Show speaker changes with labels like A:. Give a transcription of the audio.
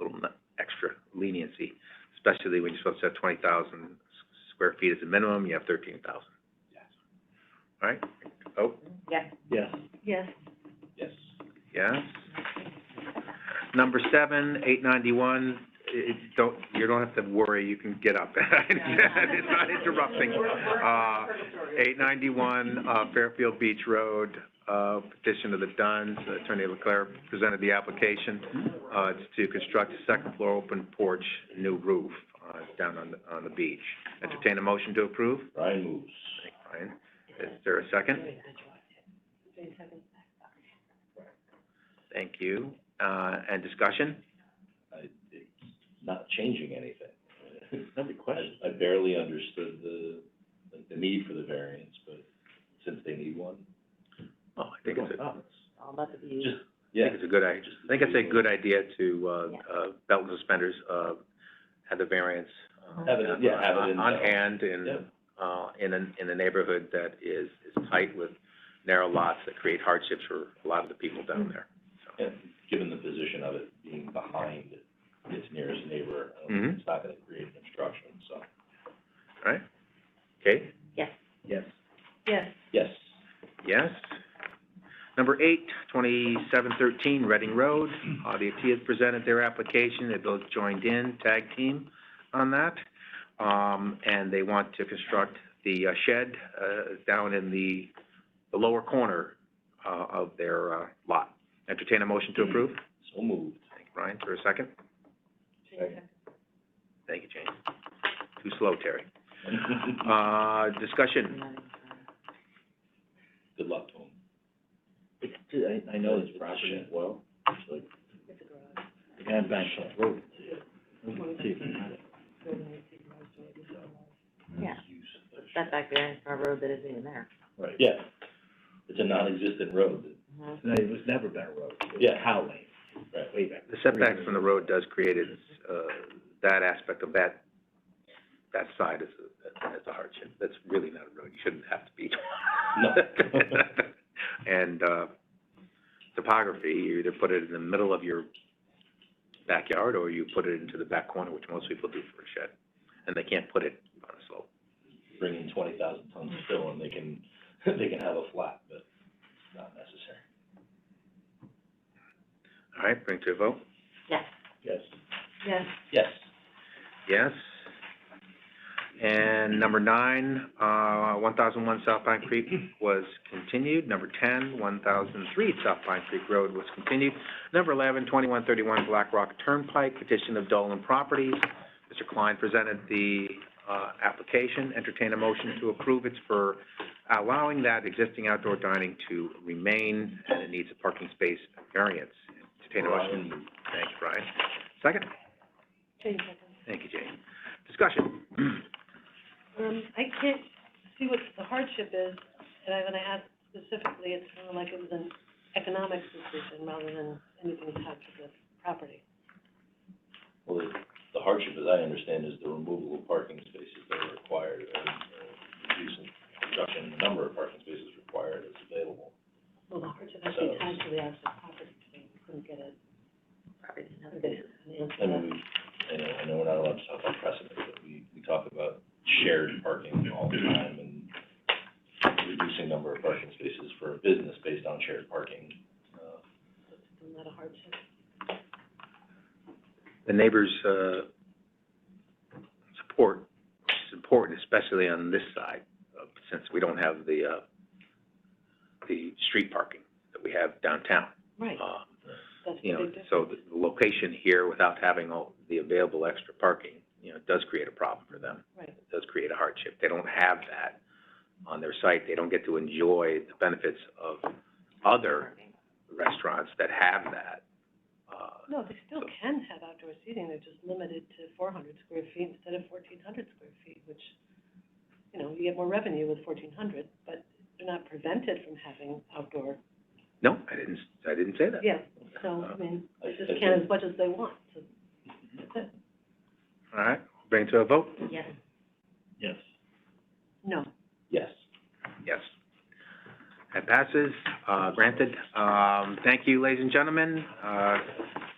A: uh, leniency, especially when you're supposed to have twenty thousand square feet as a minimum, you have thirteen thousand.
B: Yes.
A: All right, oh,
C: Yes.
B: Yes.
C: Yes.
B: Yes.
A: yes. Number seven, eight ninety-one, it, it- don't, you don't have to worry, you can get up. It's not interrupting. Uh, eight ninety-one, uh, Fairfield Beach Road, uh, petition of the Duns, Attorney Leclerc presented the application. Uh, it's to construct a second floor open porch, new roof, uh, down on, the- on the beach. Entertain a motion to approve?
B: Ryan moves.
A: Thank you, Brian. Is there a second? Thank you. Uh, and discussion?
B: I, it's not changing anything. Another question. I barely understood the, like, the need for the variance, but since they need one,
A: Oh, I
B: they're
A: think
B: going
A: it's a, I
B: nuts.
C: All about the views.
B: Just,
A: think
B: yeah,
A: it's a good idea. I think it's a good idea to, uh, uh, belt and suspenders, uh, have the variance, uh,
B: Have it in- yeah, have it in-
A: on hand
B: yeah,
A: in, uh, in a, in a neighborhood that is, is tight with narrow lots that create hardships for a lot of the people down there.
B: and given the position of it being behind its nearest neighbor, I don't think
A: Mhm.
B: it's not gonna create an obstruction, so.
A: All right? Okay?
C: Yes.
A: Yes.
C: Yes.
B: Yes.
A: Yes. Number eight, twenty-seven thirteen Reading Road, uh, the has presented their application, they both joined in, tag team on that. Um, and they want to construct the uh, shed, uh, down in the, the lower corner, uh, of their, uh, lot. Entertain a motion to approve?
B: So moved.
A: Thank you, Brian, for a second. Thank you, James. Too slow, Terry. Uh, discussion,
B: Good luck to him. I, I know this property well, it's like. The guy back on the road.
C: Yeah, set back there in front of a road that isn't even there.
B: Right, yeah. It's a non-existent road.
C: Mhm.
B: No, it was never been a road. Yeah. Highway. Right. Way back.
A: the setback from the road does create its, uh, that aspect of that, that side is, a- that's a hardship. That's really not a road, you shouldn't have to be.
B: No.
A: And, uh, topography, you either put it in the middle of your backyard or you put it into the back corner, which most people do for a shed. And they can't put it on a slope.
B: Bring in twenty thousand tons of fill and they can, they can have a flat, but it's not necessary.
A: All right, bring to a vote.
C: Yes.
B: Yes.
C: Yes.
B: Yes.
A: Yes. And number nine, uh, one thousand one South Pine Creek was continued. Number ten, one thousand three South Pine Creek Road was continued. Number eleven, twenty-one thirty-one Black Rock Turnpike, petition of Dolan Properties. Mr. Klein presented the, uh, application, entertain a motion to approve. It's for allowing that existing outdoor dining to remain, and it needs a parking space variance. Entertain a motion.
B: Ryan,
A: Thanks, Brian. Second? Thank you, Jane. Discussion.
D: Um, I can't see what the hardship is, and I, when I asked specifically, it's kind of like it was an economic decision rather than anything tied to the property.
B: Well, the- the hardship, as I understand, is the removal of parking spaces that are required, and, uh, reducing, reduction in the number of parking spaces required is available.
D: Well, the hardship actually tied to the actual property, so we couldn't get a,
C: Probably didn't have a
D: couldn't get
C: good.
D: an answer
B: I
D: to that.
B: mean, we, I know, I know we're not allowed to talk about precedent, but we, we talk about shared parking all the time and reducing number of parking spaces for a business based on shared parking. Uh,
D: Isn't that a hardship?
A: The neighbors, uh, support, which is important, especially on this side, uh, since we don't have the, uh, the street parking that we have downtown.
D: Right,
A: Uh,
D: that's the
A: you know,
D: big difference.
A: so the the location here without having all the available extra parking, you know, does create a problem for them.
D: Right,
A: It does create a hardship. They don't have that on their site. They don't get to enjoy the benefits of other restaurants that have that, uh,
D: no, they still can have outdoor seating, they're just limited to four hundred square feet instead of fourteen hundred square feet, which, you know, you get more revenue with fourteen hundred, but they're not prevented from having outdoor
A: No, I didn't, I didn't say that.
D: Yeah, so, I mean,
B: I-
D: they
B: I
D: just can
B: think-
D: as much as they want, so, that's it.
A: All right, bring it to a vote?
C: Yes.
B: Yes.
D: No,
B: Yes.
A: Yes. That passes, uh, granted. Um, thank you, ladies and gentlemen. Uh,